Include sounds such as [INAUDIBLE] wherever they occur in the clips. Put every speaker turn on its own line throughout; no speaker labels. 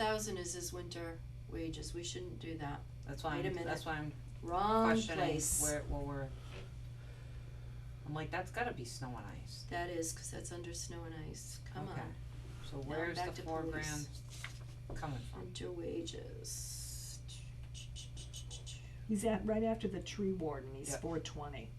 thousand is his winter wages, we shouldn't do that,
That's why,
Wait a
I'm-
minute.
that's why I'm
wrong
questioning
place,
where, well, we're. I'm like, that's gotta be snow and ice,
that is, cause that's under snow and ice, come
Okay.
on,
so
I'm
where's
back
the
to
four
police.
grand coming from?
winter wages.
He's at, right after the tree warden, he's
Yep.
four twenty.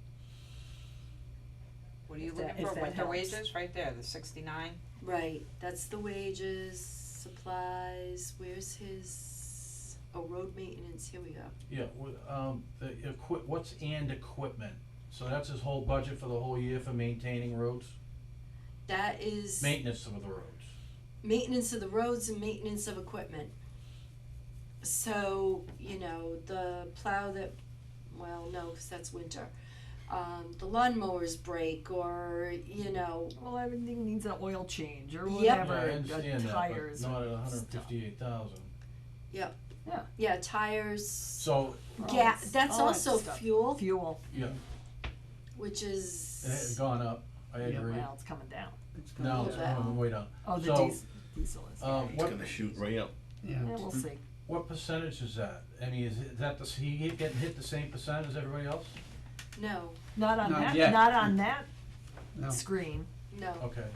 What are you
If that-
looking
if
for,
that
winter
helps.
wages, right there, the sixty-nine,
Right, that's the wages, supplies, where's his, oh, road maintenance, here we go,
Yeah, w- um, the equi- what's and equipment? So that's his whole budget for the whole year for maintaining roads,
that is
maintenance of the roads.
maintenance of the roads and maintenance of equipment. So, you know, the plow that, well, no, cause that's winter, um, the lawnmowers break or, you know,
Well, everything needs an oil change or
Yep.
whatever,
Yeah, I
and the
understand that, but
tires.
not at
and
hundred and
stuff.
fifty-eight thousand.
yeah, tires,
So,
All
yeah,
this-
that's
all that
also
stuff.
fuel,
Fuel,
yeah,
which
it has
is,
gone up, I
Yeah.
agree.
well, it's coming down.
No, it's
Yeah.
going way down.
Oh, the
So,
diesel, diesel is,
Um,
It's
what,
gonna shoot right up.
yeah, we'll
Mm.
see.
what percentage is that? I mean, is it- that, the s- he get- getting hit the same percent as everybody else?
no,
Not on
Not
that,
yet.
not on that
No.
screen.
no,
Okay.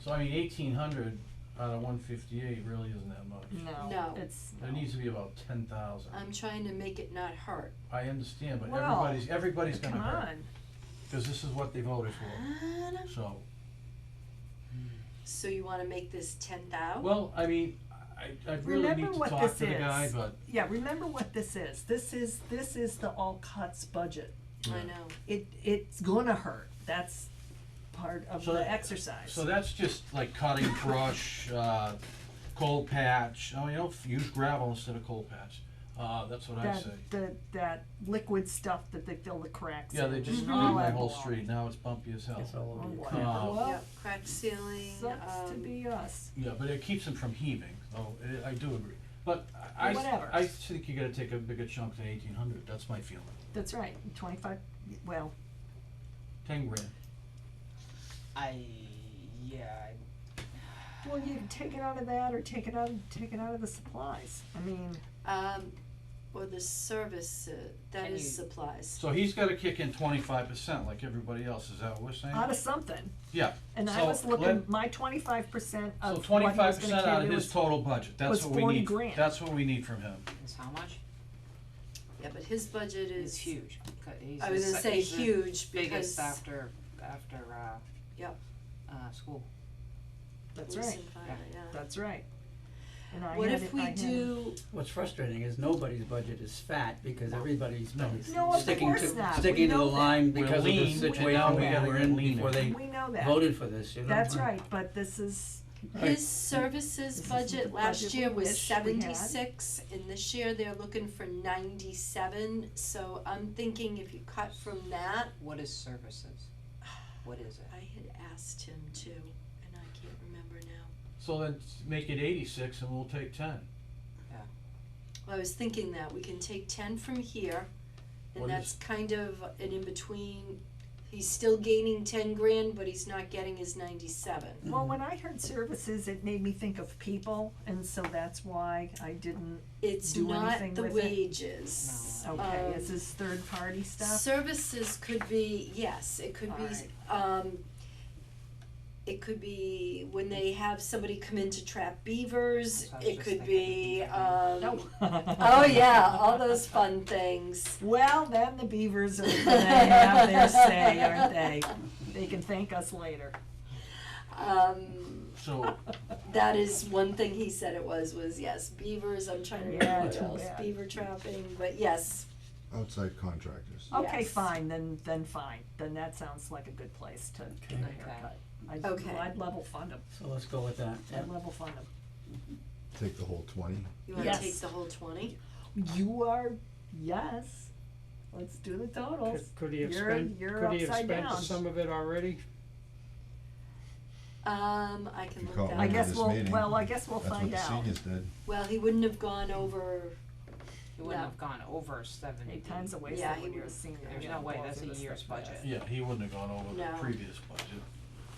So I mean, eighteen hundred out of one fifty-eight really isn't that much.
No,
No.
it's,
There needs to be about ten thousand.
I'm trying to make it not hurt.
I understand, but
Well,
everybody's, everybody's gonna
come
hurt,
on,
cause this is what they voted for,
I don't-
so.
So you wanna make this ten thou?
Well, I mean, I, I really
Oh. Remember
need to
what
talk
this
to the guy,
is.
but,
yeah, remember what this is, this is, this is the all cuts budget.
I know,
It, it's gonna hurt, that's part of
So-
the exercise.
so that's just like cutting
[COUGHS]
brush, uh, coal patch, oh, you don't f- use gravel instead of coal patch, uh, that's what I
That,
say.
the, that liquid stuff that they fill the cracks in.
Yeah, they just
and
paved
all
my
that
whole
baloney.
street, now it's bumpy as hell.
It's all
Oh,
over your
wow.
crap. Uh,
Well,
yep, cracked ceiling,
Sucks to
um,
be us.
Yeah, but it keeps them from heaving, though, I- I do agree, but I,
Whatever.
I think you gotta take a bigger chunk than eighteen hundred, that's my feeling,
That's right. Twenty-five. Well,
ten grand.
I, yeah, I
well, you can take it out of that, or take it out, take it out of the supplies. I mean,
Um, or the service, uh, that
And
is
you-
supplies.
So he's gotta kick in twenty-five percent like everybody else, is that what we're saying?
out of something.
Yeah,
And I
so
was looking.
let-
My twenty-five percent
So
of uh, what he
twenty-five
was going
percent
to
out of
carry
his
was.
total budget,
was
that's what we
40
need,
grand.
that's what we need from him.
Is how much?
Yeah, but his budget
It's
is,
huge. Co- He's
I
the
was gonna
sec-
say
he's the
huge because
Biggest after, after, uh.
Yep.
Uh, school.
That's
police
right.
and fire, yeah.
That's right. And I
What
had
if
it- I
we
had it.
do,
What's frustrating is nobody's budget is fat because everybody's
No.
been
No, of
sticking
course
to,
not. We
sticking to the
know that.
line
We're
because of the
lean, and
now
situation
we
we
gotta
were
get
in
leaner.
before they
We know that.
voted for this, you know?
That's right. But this is
his services
This is the
budget last
budget
year was
wish we had.
seventy-six, and this year they're looking for ninety-seven, so I'm thinking if you cut from that,
What is services? What is it?
I had asked him to, and I can't remember now.
So then s- make it eighty-six and we'll take ten.
Well, I was thinking that, we can take ten from here, and
What is-
that's kind of an in-between, he's still gaining ten grand, but he's not getting his ninety-seven.
well. When I heard services, it made me think of people, and so that's why I didn't.
It's
do
not
anything
the
with it?
wages.
Okay,
Um,
is this third party stuff?
Services could be, yes, it could be,
Alright.
um, it could be when they have somebody come in to trap beavers,
That's what I was
it
just
could be,
thinking.
[LAUGHS]
um, oh
oh
yeah, all those fun things.
[LAUGHS] Well, then the beavers are gonna have their say, aren't they? They can thank us later.
Um,
So,
That is one thing he said it was, was yes, beavers, I'm trying to remember
Yeah,
what
too
else,
bad.
beaver trapping, but yes,
Outside contractors.
Okay,
Yes.
fine, then, then fine, then that sounds like a good place to get a
Okay.
haircut. I'd,
Okay.
I'd level fund them,
So let's go with that, yeah.
I'd level fund them.
Take the whole twenty.
you wanna
Yes.
take the whole twenty?
You are, yes, let's do the totals.
Could, could he have
You're-
spent,
you're
could he have
upside
spent
down.
some of it already?
Um, I can
You
look
call
that
I
it
up.
Remember
guess
this
we'll,
meeting.
well, I guess we'll
That's what
find
the
out.
seniors did.
Well, he wouldn't have gone over,
He wouldn't
No.
have gone over seventy.
Eight times a waste
Yeah,
of when
he
you're a
would-
senior.
There's
you
no
don't
way,
go
that's
through
a
this
year's
stuff
budget.
fast.
yeah, he wouldn't have gone over
No.
the previous budget.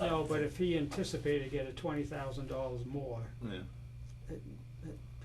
No, but if he anticipated getting twenty thousand dollars more,
Yeah.
it-